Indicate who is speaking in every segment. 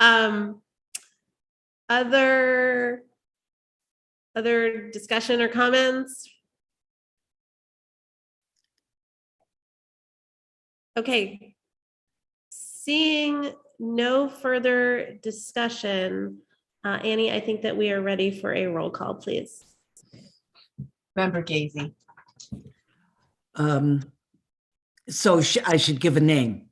Speaker 1: Um, other, other discussion or comments? Okay. Seeing no further discussion, uh, Annie, I think that we are ready for a roll call, please.
Speaker 2: Member Gazy.
Speaker 3: Um, so sh- I should give a name.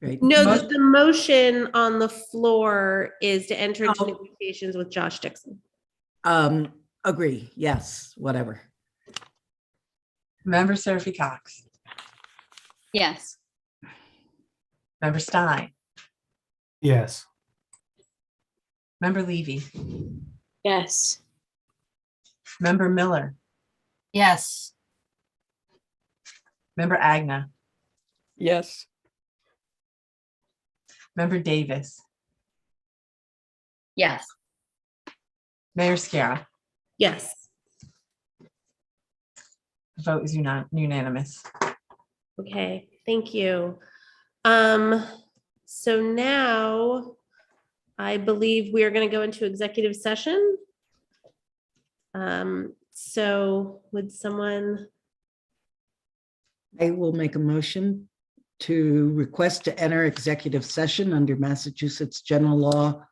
Speaker 3: Right?
Speaker 1: No,
Speaker 2: Mo-
Speaker 1: the, the motion on the floor is to enter into
Speaker 3: Oh.
Speaker 1: negotiations with Josh Dixon.
Speaker 3: Um, agree, yes, whatever.
Speaker 2: Member Seraphy Cox.
Speaker 4: Yes.
Speaker 2: Member Stein.
Speaker 5: Yes.
Speaker 2: Member Levy.
Speaker 4: Yes.
Speaker 2: Member Miller.
Speaker 4: Yes.
Speaker 2: Member Agna.
Speaker 6: Yes.
Speaker 2: Member Davis.
Speaker 4: Yes.
Speaker 2: Mayor Scarra.
Speaker 1: Yes.
Speaker 2: The vote is uni- unanimous.
Speaker 1: Okay, thank you. Um, so now I believe we are going to go into executive session. Um, so would someone,
Speaker 3: I will make a motion to request to enter executive session under Massachusetts General Law,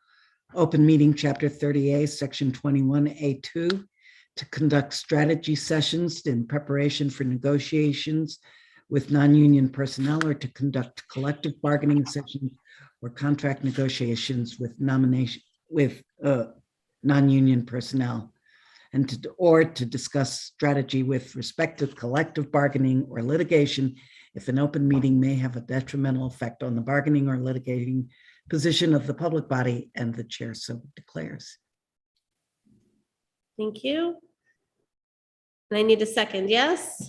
Speaker 3: Open Meeting Chapter 30A, Section 21A2, to conduct strategy sessions in preparation for negotiations with non-union personnel or to conduct collective bargaining sessions or contract negotiations with nomination, with uh, non-union personnel and to, or to discuss strategy with respect to collective bargaining or litigation if an open meeting may have a detrimental effect on the bargaining or litigating position of the public body and the chair so declares.
Speaker 1: thank you. And I need a second, yes?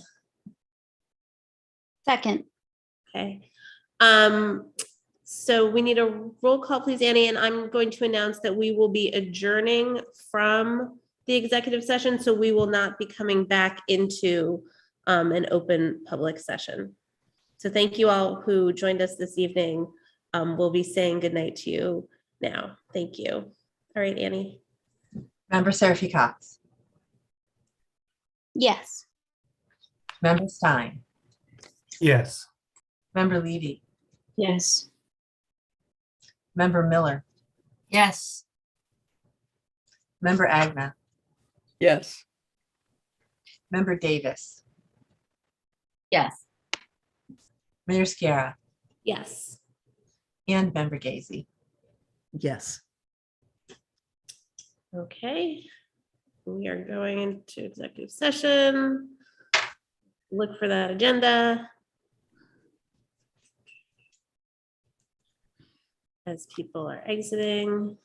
Speaker 4: Second.
Speaker 1: Okay. Um, so we need a roll call, please, Annie, and I'm going to announce that we will be adjourning from the executive session, so we will not be coming back into um, an open public session. So thank you all who joined us this evening. Um, we'll be saying goodnight to you now. Thank you. All right, Annie.
Speaker 2: Member Seraphy Cox.
Speaker 4: Yes.
Speaker 2: Member Stein.
Speaker 5: Yes.
Speaker 2: Member Levy.
Speaker 4: Yes.
Speaker 2: Member Miller.
Speaker 4: Yes.
Speaker 2: Member Agna.
Speaker 6: Yes.
Speaker 2: Member Davis.
Speaker 4: Yes.
Speaker 2: Mayor Scarra.
Speaker 1: Yes.
Speaker 2: And Member Gazy.
Speaker 3: Yes.
Speaker 1: Okay, we are going into executive session. Look for that agenda. As people are exiting.